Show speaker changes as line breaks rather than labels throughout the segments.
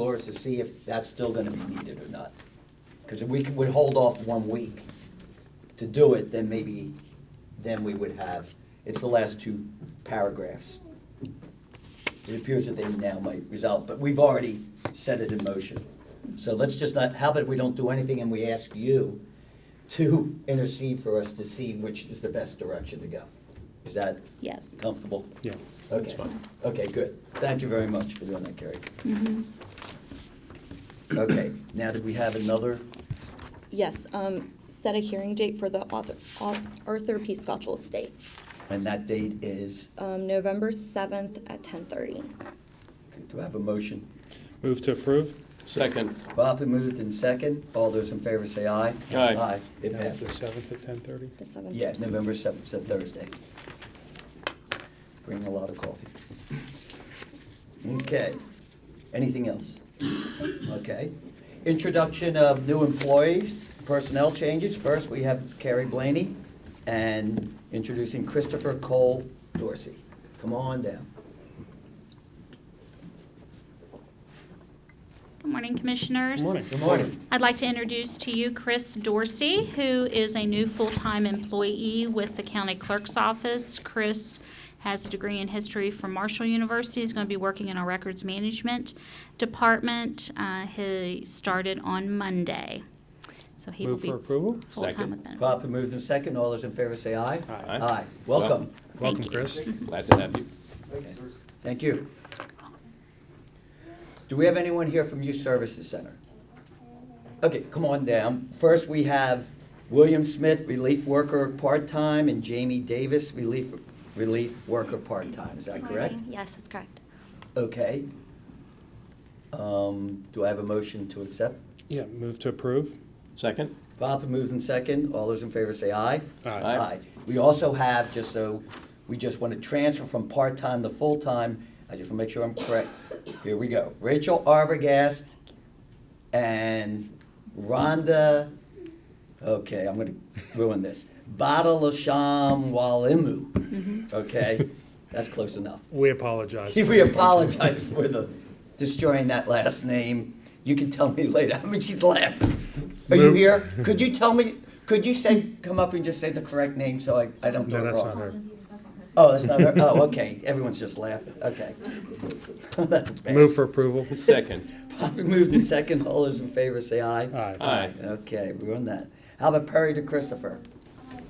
dollars to see if that's still gonna be needed or not. Cause if we could, would hold off one week to do it, then maybe, then we would have, it's the last two paragraphs. It appears that they now might resolve, but we've already set it in motion. So let's just not, how about we don't do anything and we ask you to intercede for us to see which is the best direction to go? Is that
Yes.
comfortable?
Yeah,
Okay.
that's fine.
Okay, good. Thank you very much for doing that, Carrie.
Mhm.
Okay, now that we have another,
Yes, um, set a hearing date for the author, au- Arthur P. Scotchell estate,
and that date is,
um, November seventh at ten thirty.
do I have a motion?
Move to approve?
Second.
Properly moved in second. All those in favor say aye.
Aye.
Aye, it
That was the
passes.
seventh at ten thirty?
The seventh.
Yeah, November seventh, it's a Thursday. Bring a lot of coffee. Okay, anything else? Okay. Introduction of new employees, personnel changes. First, we have Carrie Blaney and introducing Christopher Cole Dorsey. Come on down.
Good morning, Commissioners.
Good morning.
Good morning.
I'd like to introduce to you Chris Dorsey, who is a new full-time employee with the County Clerk's Office. Chris has a degree in history from Marshall University. He's going to be working in our Records Management Department. Uh, He started on Monday. So he will
Move
be
for approval?
full-time
Second.
with benefits.
Properly moved in second. All those in favor say aye.
Aye.
Aye. Welcome.
Welcome,
you.
Chris.
Glad to have you.
Okay. Thank you. Do we have anyone here from Youth Services Center? Okay, come on down. First, we have William Smith, relief worker, part-time, and Jamie Davis, relief, relief worker, part-time. Is that
Good
correct?
morning. Yes, that's correct.
Okay. Um, Do I have a motion to accept?
Yeah, move to approve?
Second.
Bob moves in second. All those in favor say aye.
Aye.
We also have, just so, we just want to transfer from part-time to full-time. I just want to make sure I'm correct. Here we go. Rachel Arbogast and Rhonda, okay, I'm going to ruin this. Badalasham Walimu. Okay? That's close enough.
We apologize.
We apologize for the destroying that last name. You can tell me later. I mean, she's laughing. Are you
Move-
here? Could you tell me? Could you say, come up and just say the correct name so I, I don't do
No,
it
that's
wrong?
not her.
Oh, that's not her. Oh, okay. Everyone's just laughing. Okay. that's bad.
Move for approval?
Second.
Probably moved in second. All those in favor say aye.
Aye.
Aye.
Okay, we're on that. How about Perry to Christopher?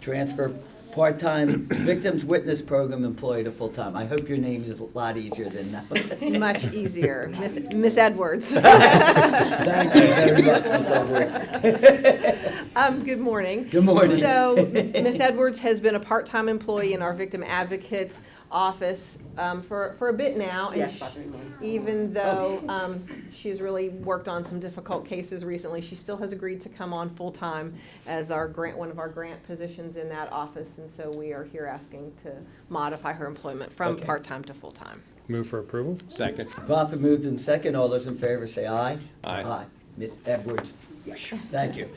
Transfer part-time victims witness program employee to full-time. I hope your name is a lot easier than that.
Much easier. Miss- Miss Edwards.
Thank you very much, Ms. Edwards.
Um, Good morning.
Good morning.
So Miss Edwards has been a part-time employee in our Victim Advocates Office um, for for a bit now. and
Yes,
sh-
about three months.
Even though um, she's really worked on some difficult cases recently, she still has agreed to come on full-time as our grant, one of our grant positions in that office. And so we are here asking to modify her employment from
Okay.
part-time to full-time.
Move for approval?
Second.
Proper moved in second. All those in favor say aye.
Aye.
Ms. Edwards, thank you.
Thank you,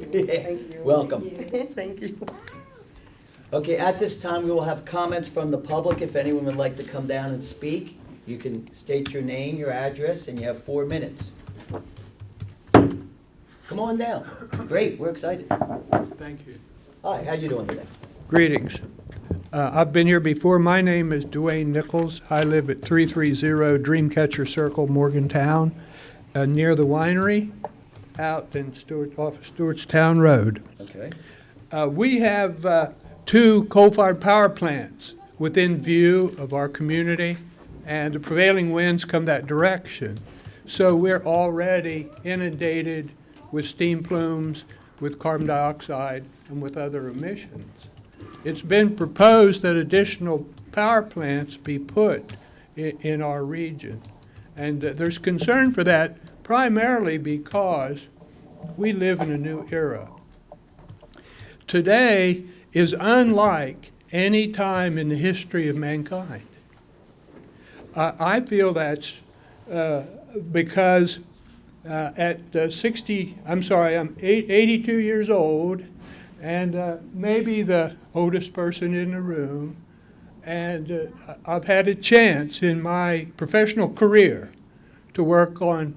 thank you.
Welcome.
Thank you.
Okay, at this time, we will have comments from the public. If anyone would like to come down and speak, you can state your name, your address, and you have four minutes. Come on down. Great, we're excited.
Thank you.
Hi, how you doing today?
Greetings. Uh, I've been here before. My name is Dwayne Nichols. I live at 330 Dreamcatcher Circle, Morgantown, uh, near the winery, out in Stewart, off of Stewartstown Road.
Okay.
Uh, We have uh, two coal-fired power plants within view of our community, and the prevailing winds come that direction. So we're already inundated with steam plumes, with carbon dioxide, and with other emissions. It's been proposed that additional power plants be put i- in our region. And uh, there's concern for that primarily because we live in a new era today is unlike any time in the history of mankind. I I feel that's uh, because uh, at uh, 60, I'm sorry, I'm eight- 82 years old, and uh, maybe the oldest person in the room, and uh, I- I've had a chance in my professional career to work on